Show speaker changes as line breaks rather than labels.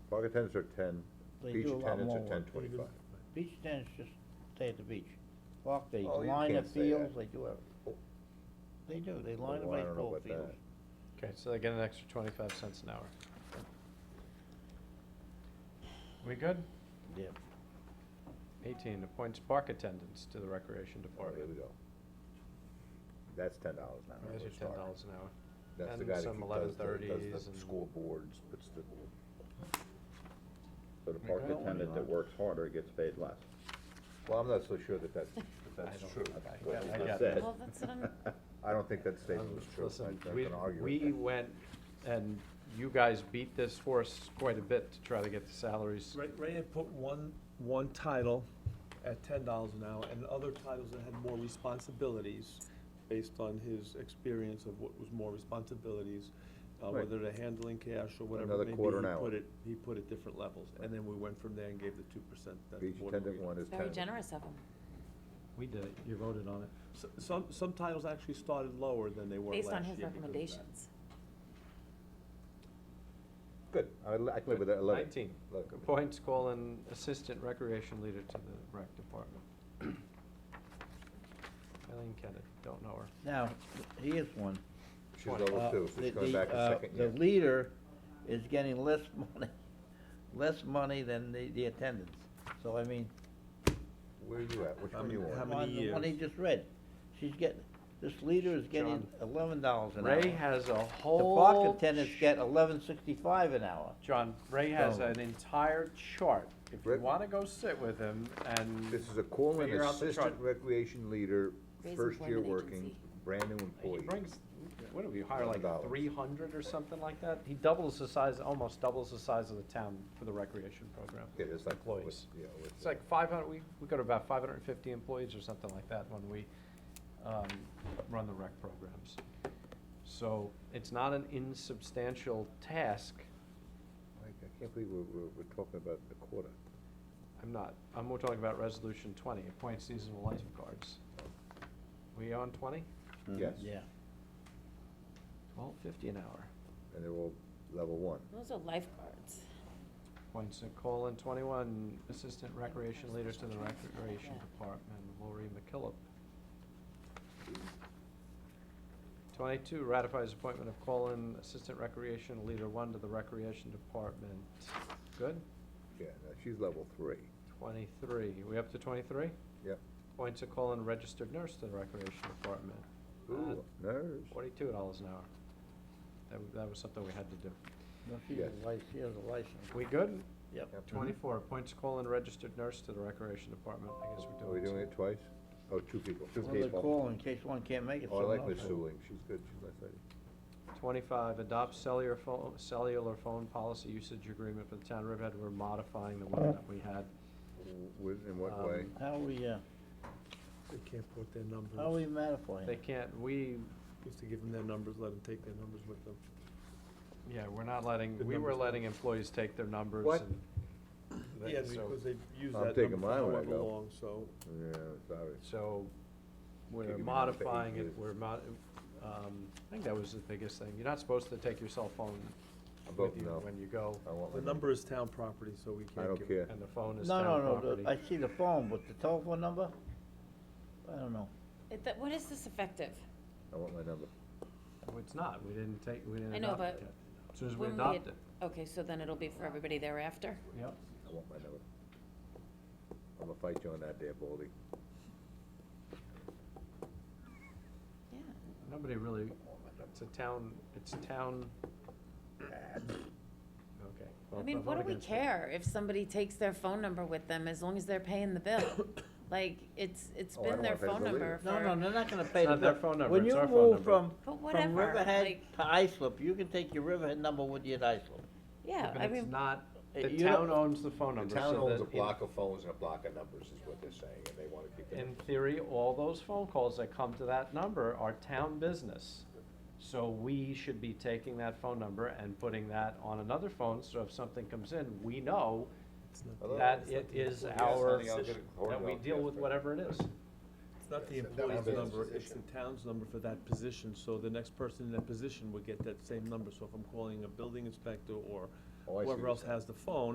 Pocket tents are ten,
They
beach
do a lot
attendants
more
are ten
work. They do-
twenty-five.
Beach tennis, just stay at the beach. Walk, they
Oh, you
line the
can't say that.
fields, they do everything. They do, they line the
Well, Oh, I don't know
baseball
about
fields.
that.
Okay, so they get an extra twenty-five cents an hour. We good?
Yeah.
Eighteen, appoints park attendants to the recreation
Oh, there we
department.
go. That's ten dollars an hour.
Those are
we're
ten
starting.
dollars an hour.
That's the
and
guy that
some
keep- does the-
11:30s
does the
and-
school boards, puts the. So the
We
park
one
got
attendant that
on.
works harder gets paid less. Well, I'm not so sure that that's, that
I
that's
don't-
true.
I-
That's what
I-
you
I
just
got
said.
that.
Well, that's what I'm-
I don't think that statement
Um,
was true.
listen,
I'm not
we-
gonna argue with
We
that.
went, and you guys beat this horse quite a bit to try to get the salaries.
Ray, Ray had put one, one title at ten dollars an hour, and other titles that had more responsibilities, based on his experience of what was more responsibilities, uh,
Right.
whether they're handling cash or whatever.
Another
it may be,
quarter an
he
hour.
Put it, he put it different levels, and then we went from there and gave the two percent that the
Beach
board
attendant
agreed.
one is ten.
Very generous of him.
We did it, you voted on it.
S- Some, some titles actually started lower than they were last year.
Based on his
because of that.
recommendations.
Good, I, li- I can live with that, eleven.
Nineteen,
Eleven.
appoints call an assistant recreation leader to the rec department. Eileen Kennedy, don't know her.
Now, here's one.
She's level
Uh,
two, so
the-
she's going
the,
back a
uh,
second year.
The leader is getting less money, less money than the, the attendants. So I mean,
Where are you at? Which
How
Um,
one you
many-
want?
how many
on the one he
years?
just read, she's getting, this leader is getting
John.
eleven dollars an hour.
Ray has a
The
whole.
park attendants get eleven sixty-five an hour.
John, Ray has
Oh.
an entire chart. If you
Rick-
wanna go sit with him and.
This is a call in
figure out the
assistant
chart.
recreation leader,
Raise
first year
employment
working,
agency.
brand new
He
employee.
brings, what do we hire, like
$11.
three hundred or something like that? He doubles the size, almost doubles the size of the town for the recreation program.
Yeah, it's like what-
Employees.
yeah, uh, what-
It's like five hundred, we, we go to about five hundred and fifty employees or something like that when we, um, run the rec programs. So it's not an insubstantial task.
I I can't believe we're, we're, we're talking about the quarter.
I'm not, I'm, we're talking about resolution twenty, appoint seasonal lifeguards. We on twenty?
Yes.
Yeah.
Twelve fifty an hour.
And they're all level one.
Those are lifeguards.
Appoints Nicole in twenty-one, Assistant Recreation Leader to the Recreation Department, Lori McKillop. Twenty-two, ratifies appointment of Colin, Assistant Recreation Leader One to the Recreation Department. Good?
Yeah, no, she's level three.
Twenty-three, we up to twenty-three?
Yep.
Appoints a Colin, Registered Nurse to the Recreation Department. Uh,
Ooh, nurse.
Forty-two dollars an hour. That, w- that was something we had to do.
No, she has a license, she has a license.
We good?
Yep.
Yep.
Twenty-four, appoints call and registered nurse to the recreation department, I guess
Are
we're
we
doing two.
doing it twice? Oh, two people, two
Well, they call
people.
in case one can't make it.
Oh, I
someone
like Miss
else will.
Suling, she's good, she's a nice lady.
Twenty-five, adopts cellular phone, cellular phone policy usage agreement for the town of Riverhead, we're modifying the one that we had.
W- with- In what way?
Um,
How we, uh,
They can't put their numbers.
how we
They
modifying?
can't, we,
We Used to give them their numbers, let them take their numbers with them.
yeah, we're not letting,
The
we were
numbers.
letting employees take their numbers
What?
and. that-
Yeah,
so-
because they've used
I'm
that
taking
number for
mine when I
however
go.
long, so.
Yeah, sorry.
So,
Give
we're
you another eight
modifying it,
years.
we're mod, um, I think that was the biggest thing, you're not supposed to take your cell phone
I'm
with
voting
you
no.
when you go,
I want my.
The number is town property, so we can't
I
give it.
don't care.
and the phone is
No,
town
no, no,
property.
the- I see the phone, but the telephone number? I don't know.
It- that- When is this effective?
I want my number.
Well, It's not, we didn't take, we didn't
I know,
adopt it
but
yet. As soon as we
When
adopt it,
Okay, so then it'll be for everybody thereafter?
yep.
I want my number. I'm gonna fight you on that there, Baldy.
Yeah.
Nobody really, it's a town, it's a town. Okay.
I
well,
mean,
I'm
what
only
do we
gonna say-
care if somebody takes their phone number with them as long as they're paying the bill? Like, it's, it's
Oh, I
been
don't
their
wanna pay the
phone
bill
number
No, no,
for.
they're not gonna pay the.
not their
bill.
phone number,
When
it's
you
our phone
move
number.
from,
But
from
whatever,
Riverhead
like-
to Islip, you can take your Riverhead number with you at Islip.
Yeah, I
But it's
mean,
not,
Uh,
the
you
town
don't-
owns the phone number.
The town
so
owns a
that in-
block of phones and a block of numbers is what they're saying, and they wanna keep it.
In theory, all those phone calls that come to that number are town business. So we should be taking that phone number and putting that on another phone, so if something comes in, we know
It's not
Hello?
that it is our,
honey, I'll get it
that
ordered
we
out
deal with
faster.
whatever it is.
It's not the
It's the
employee's
town's
number, it's
position.
the town's number for that position, so the next person in that position would get that same number. So if I'm calling a building inspector or
Oh, I see what
whoever
you're
else
saying.
has the phone,